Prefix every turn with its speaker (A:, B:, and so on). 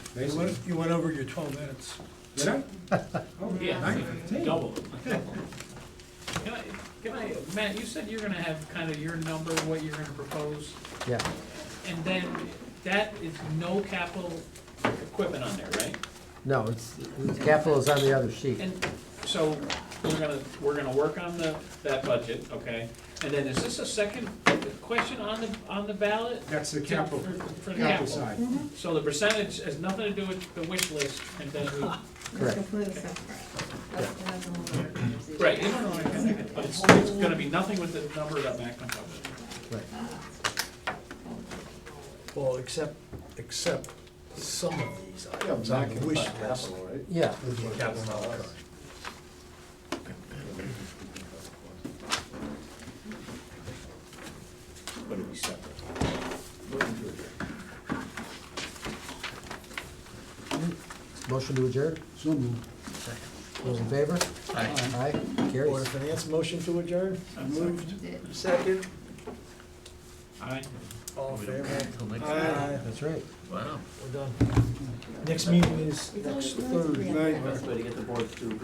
A: You
B: basically.
A: went, you went over your twelve minutes.
B: Did I? Oh,
C: Yeah,
B: nine fifteen.
C: double it. Can I, can I, Matt, you said you're gonna have kind of your number, what you're gonna propose,
D: Yeah,
C: and then that is no capital equipment on there, right?
D: no, it's, capital is on the other sheet.
C: And so, we're gonna, we're gonna work on the, that budget, okay? And then is this a second question on the, on the ballot?
B: That's the capital,
C: For- For the
B: capital
C: capital.
B: side.
C: So the percentage has nothing to do with the wish list, and then we,
D: Correct.
E: That's completely separate. That's, that's a whole other conversation.
C: right, you know, but it's, it's gonna be nothing with the number that Matt comes up with.
D: Right.
F: Well, except, except some of these
G: Yeah,
F: items on
G: back
F: the
G: in
F: wish list.
G: capital, right?
D: Yeah,
F: would be capital outlay.
B: But it'd be separate.
D: motion to adjourn,
G: So moved.
D: those in favor? Aye. Aye,
F: Board of
D: carries.
F: Finance motion to adjourn? Moved.
E: Did-
F: Second.
C: Aye.
F: All in favor? Aye.
D: That's right.
F: We're done. Next meeting is
E: It's only
F: next
E: one
F: Thursday.
E: together.
G: Best way to get the boards to